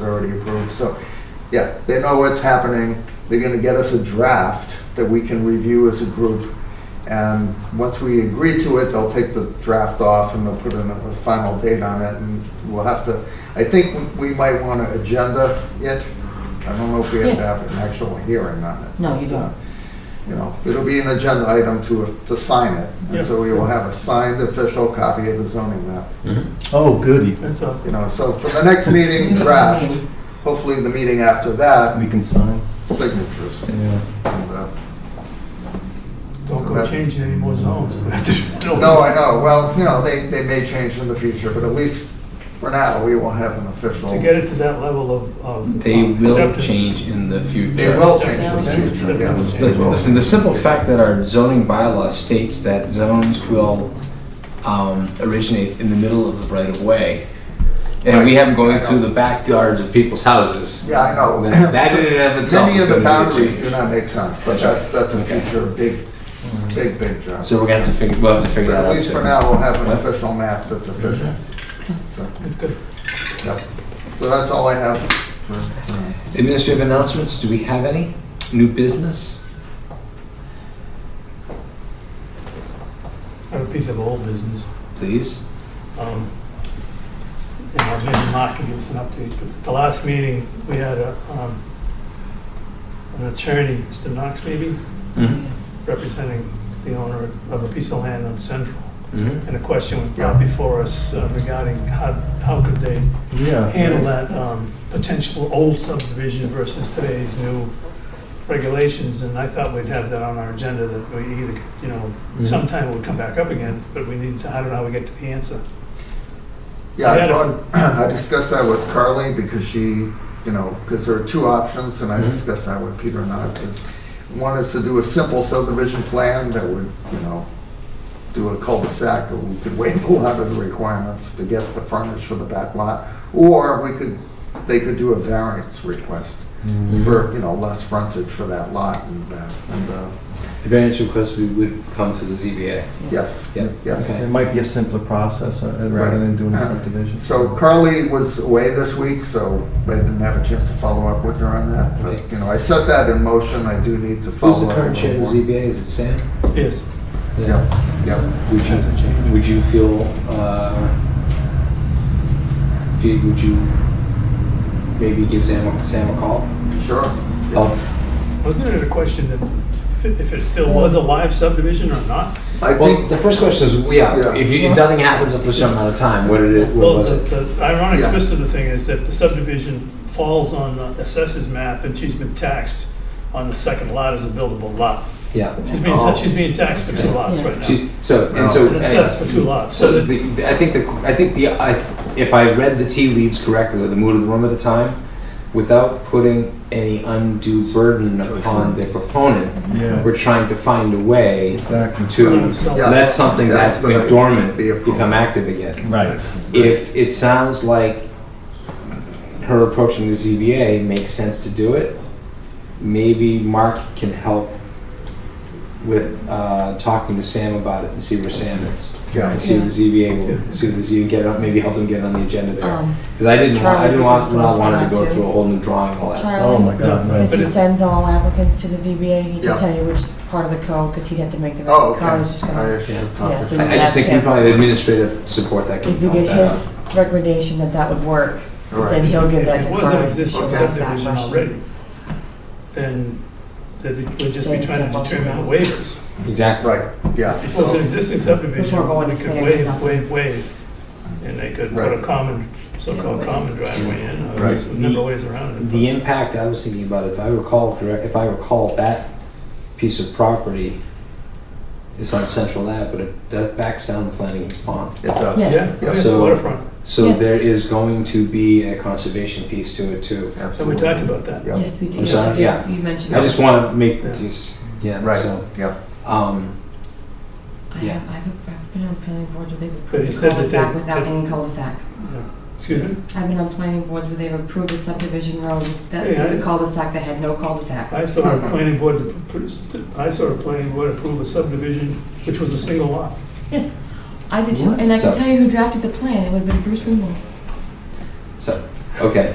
happening, so, yeah, they know what's happening. They're gonna get us a draft that we can review as a group. And once we agree to it, they'll take the draft off and they'll put in a final date on it and we'll have to, I think we we might wanna agenda it. I don't know if we have to Yes. have an actual hearing on it. No, you don't. Uh, You know, it'll be an agenda item to, to sign it. And so we will have a signed official copy of the zoning map. Oh, goody. That's awesome. You know, so for the next meeting draft, hopefully the meeting after that, We can sign. signatures. Yeah. And, uh, Don't go changing any more zones. No, I know, well, you know, they, they may change in the future, but at least for now, we will have an official. To get it to that level of, of. They uh, will acceptance. change in the future. They will Yeah. change in the future, yes. Yeah. they will. Listen, the simple fact that our zoning bylaw states that zones will um, originate in the middle of the right of way, and we have them going through the backyards of people's houses. Yeah, I know. That that in and of itself Many is of the going to be a boundaries do change. not make sense, but that's, that's a future big, big, big job. So we're gonna have to figure, we'll have to figure But that out. At least too. for now, we'll have an official map that's official. Mm-hmm. So, That's good. yep. So that's all I have. for- for- Administrative announcements, do we have any? New business? I have a piece of old business. Please? Um, And I'll maybe Mark can give us an update, but at the last meeting, we had a, um, an attorney, Mr. Knox maybe, Mm-hmm. Mm-hmm. representing the owner of a piece of land on Central. Mhm. And a question was brought before us uh, regarding how, how could they Yeah. handle that um, potential old subdivision versus today's new regulations, and I thought we'd have that on our agenda, that we either, you know, Mm-hmm. Mhm. sometime it would come back up again, but we need to, I don't know how we get to the answer. Yeah, I Yeah, I brought- I discussed that with Carly because she, you know, because there are two options, and I Mhm. discussed that with Peter and I, is one is to do a simple subdivision plan that would, you know, do a cul-de-sac, or we could waive a lot of the requirements to get the frontage for the back lot, or we could, they could do a variance request Mm-hmm. Mm-hmm. for, you know, less frontage for that lot, and, uh, and, uh, The variance request we would come to the ZBA. yes, Yeah. yes. Okay. It might be a simpler process uh, rather than doing a subdivision. So Carly was away this week, so I didn't have a chance to follow up with her on that. But, you know, I set that in motion, I do need to follow Who's up. the current a chair of the little more. ZBA? Is it Sam? Yes. Yeah, yeah. Would you, Hasn't changed. would you feel, uh, if you- would you maybe give Sam, a- Sam a call? sure. Oh, Wasn't it a question that if it- if it still was a live subdivision or not? I Well, think, the first question is, yeah, Yeah. if you, if nothing happens up to a certain amount of time, what did it, what Well, was the it? the ironic Yeah. twist of the thing is that the subdivision falls on the assessor's map, and she's been taxed on the second lot as a buildable lot. Yeah. She's being, Oh. she's being taxed for two lots right now. She- So, and so. And assessed for two lots. So the, the- I think the, I think the, I, if I read the tea leaves correctly, or the mood of the room at the time, without putting any undue burden upon the proponent, Yeah, we're trying to find a way exactly. to Yeah. let something that's been dormant Be approved. become active again. Right. If it sounds like her approaching the ZBA makes sense to do it, maybe Mark can help with uh, talking to Sam about it and see where Sam is. yeah, And see if the ZBA will, see if the ZBA get up, maybe help them get on the agenda there. Um, Because I didn't want, I didn't Oh. want, Charlie's the not first want to one go to- through a whole new drawing and all that stuff. Oh, my God, Yeah. right. Because he But it- sends all applicants to the ZBA, he Yeah. can tell you which part of the code, because he'd have to make the, Oh, okay. code is just gonna, I should yeah, talk so to you I I just ask think we him. probably have administrative support that can If you help get that out. his recommendation that that would work, All then right. he'll give that If to it was an Carly, she'll existing ask that subdivision question. already, then they'd be- we'd just Say be it's trying to not multiple determine zones. waivers. Exactly. Right, yeah. If it was an existing subdivision, Before going we to could say waive, exactly. waive, waive, and they could put a Right. common, so-called common driveway in, or Right. some number of ways around it. The impact I was thinking about, if I recall correct, if I recall that piece of property is on Central Ave, but it, that backs down to Flanagan's Pond. It does. Yes. Yeah, Yeah, it's so- waterfront, So Yeah. there is going to be a conservation piece to it too. and we Absolutely. talked about that. Yeah. Yes, we did. I'm sorry, Yes, you yeah. did. You mentioned I just it. want to make Yeah. just yeah. Right, So yeah. um, I yeah. have, I've I've been on planning boards where they've But he approved a said that they- cul-de-sac without that- any cul-de-sac. Yeah. Excuse me? I've been on planning boards where they've approved a subdivision road that Yeah, was I- a cul-de-sac that had no cul-de-sac. I saw a planning board, I saw a planning board approve a subdivision, which was a single lot. Yes, I did too, What? and I can So- tell you who drafted the plan, it would have been Bruce Ringwald. so okay.